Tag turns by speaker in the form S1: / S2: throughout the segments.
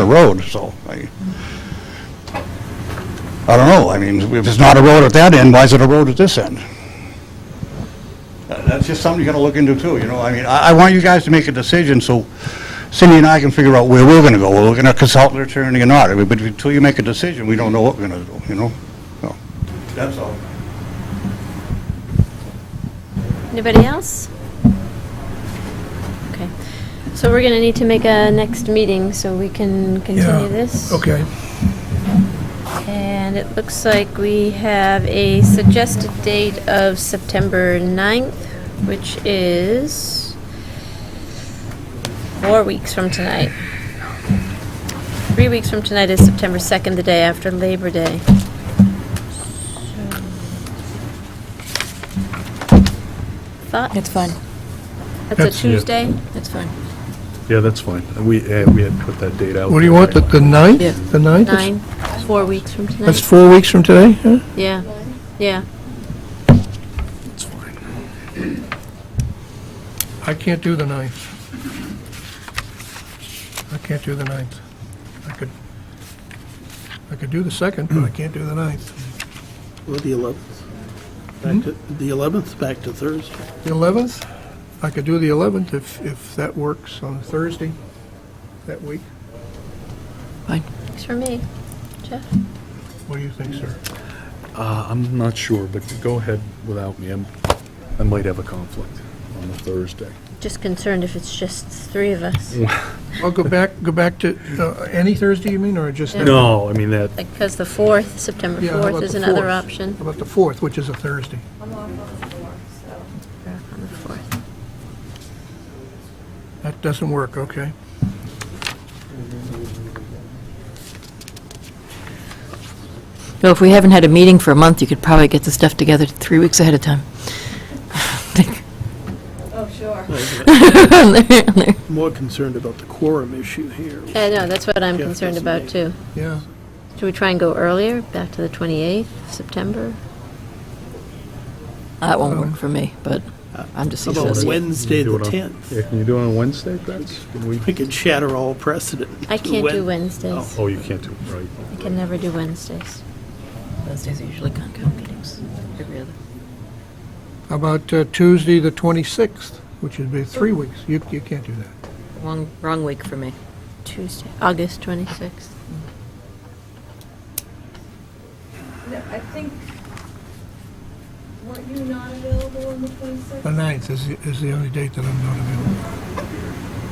S1: a road, so I, I don't know, I mean, if it's not a road at that end, why is it a road at this end? That- That's just something you gotta look into too, you know, I mean, I, I want you guys to make a decision, so Cindy and I can figure out where we're gonna go, we're gonna consult an attorney or not, I mean, but until you make a decision, we don't know what we're gonna do, you know? So, That's all.
S2: Anybody else? Okay. So we're going to need to make a next meeting so we can continue this.
S3: Okay.
S2: And it looks like we have a suggested date of September 9th, which is four weeks from tonight. Three weeks from tonight is September 2nd, the day after Labor Day. So- Thought?
S4: It's fine.
S2: That's a
S3: That's- yeah.
S2: Tuesday?
S4: It's fine.
S5: Yeah, that's fine. We, uh, we had put that date out.
S3: What do you want, the- the ninth?
S4: Yeah.
S3: The ninth? That's-
S2: Nine, four weeks from
S3: That's
S2: tonight?
S3: four weeks from today, huh?
S2: Yeah, yeah.
S5: It's fine.
S3: I can't do the ninth. I can't do the ninth. I could, I could do the second, but I can't do the ninth.
S6: Well, the 11th. Back to, the 11th, back to Thursday.
S3: The eleventh, I could do the eleventh if, if that works on a Thursday that week.
S4: Fine.
S2: Thanks for me. Jeff?
S3: What do you think, sir?
S5: Uh, I'm not sure, but go ahead without me. I'm, I might have a conflict on the Thursday.
S2: Just concerned if it's just three of us.
S7: Mm.
S3: I'll go back, go back to, uh, any Thursday you mean, or just? that-
S5: No, I mean, that,
S2: Like, because the 4th, September
S3: Yeah, how
S2: 4th
S3: about
S2: is
S3: the
S2: another
S3: fourth?
S2: option.
S3: How about the fourth, which is a Thursday?
S2: Back on the 4th.
S3: That doesn't work, okay.
S4: Well, if we haven't had a meeting for a month, you could probably get the stuff together three weeks ahead of time. Oh,
S6: More concerned about the quorum issue here.
S2: Yeah, I know, that's what I'm
S6: Yeah,
S2: concerned
S6: that's
S2: about,
S6: me.
S2: too.
S3: Yeah.
S2: Should we try and go earlier, back to the 28th, of September?
S4: That won't work for me, but I'm just
S6: How about
S4: associating.
S6: Wednesday,
S5: Do
S6: the
S5: it on-
S6: 10th?
S5: yeah, can you do it on Wednesday, Chris? Can we?
S6: We could shatter all precedent.
S2: I can't do
S6: Wed-
S2: Wednesdays.
S5: Oh, you can't do it, right.
S2: I can never do Wednesdays.
S4: Wednesdays are usually Concom meetings, every other.
S3: How about uh, Tuesday, the 26th, which would be three weeks? You, you can't do that.
S4: Wrong, wrong week for me.
S2: Tuesday, August 26th.
S8: No, I think, weren't you not available on the
S3: The
S8: 26th?
S3: 9th is, the- is the only date that I'm not available.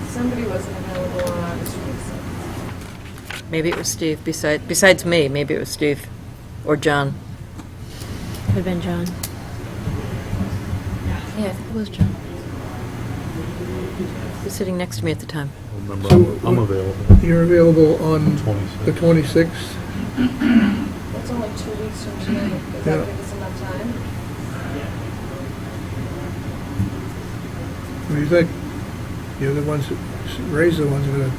S8: Somebody wasn't available on August 26th.
S4: Maybe it was Steve, besides, besides me, maybe it was Steve or John.
S2: Could have been John. Yeah, I think it was John.
S4: He was sitting next to me at the time.
S5: Remember, I'm- I'm available.
S3: You're available on the
S5: 26th.
S3: 26th?
S8: That's only two weeks from tonight. Does
S3: Yeah.
S8: that give us enough time?
S3: What do you think? You're the ones, that Ray's the ones that are going to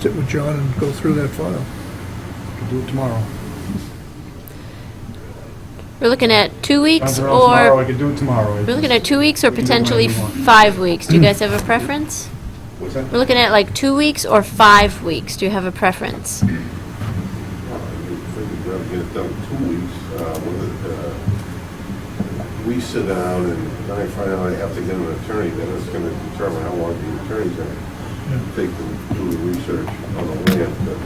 S3: sit with John and go through that file.
S1: Do it tomorrow.
S2: We're looking at two weeks or...
S7: could do it tomorrow.
S2: We're looking at two weeks or
S7: can do whatever
S2: potentially
S7: you want.
S2: five weeks. Do you guys have a preference?
S1: What's that?
S2: We're looking at like two weeks or five weeks. Do you have a preference?
S9: think we'd rather get it done in two weeks, uh, with it, uh, we sit down and then I find out I have to get an attorney, then it's gonna determine how long the attorney's gonna take to do the research on the land, but.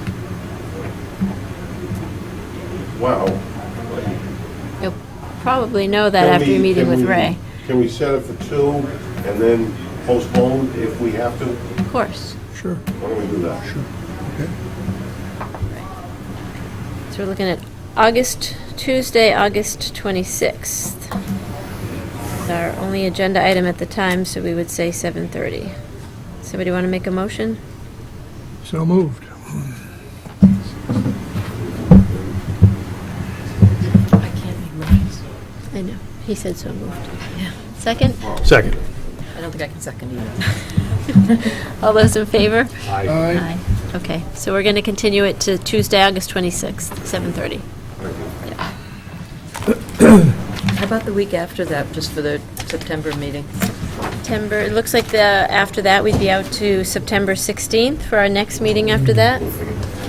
S9: uh, Wow. like,
S2: You'll probably know that
S9: can
S2: after your
S9: we-
S2: meeting
S9: can
S2: with
S9: we-
S2: Ray.
S9: Can we set it for two and then postpone if we have to? Why
S2: Of course.
S3: Sure.
S9: don't we do that?
S2: So we're looking at August, Tuesday, August 26th. It's our only agenda item at the time, so we would say 7:30. Somebody want to make a motion?
S3: So moved.
S4: I can't make motions.
S2: I know. He said so moved. Second?
S5: Second.
S4: I don't think I can second either.
S2: All those in favor?
S3: Aye.
S2: Aye. Okay, so we're going to continue it to Tuesday, August 26th, 7:30.
S4: How about the week after that, just for the September meeting?
S2: September, it looks like the, after that, we'd be out to September 16th for our next meeting after that.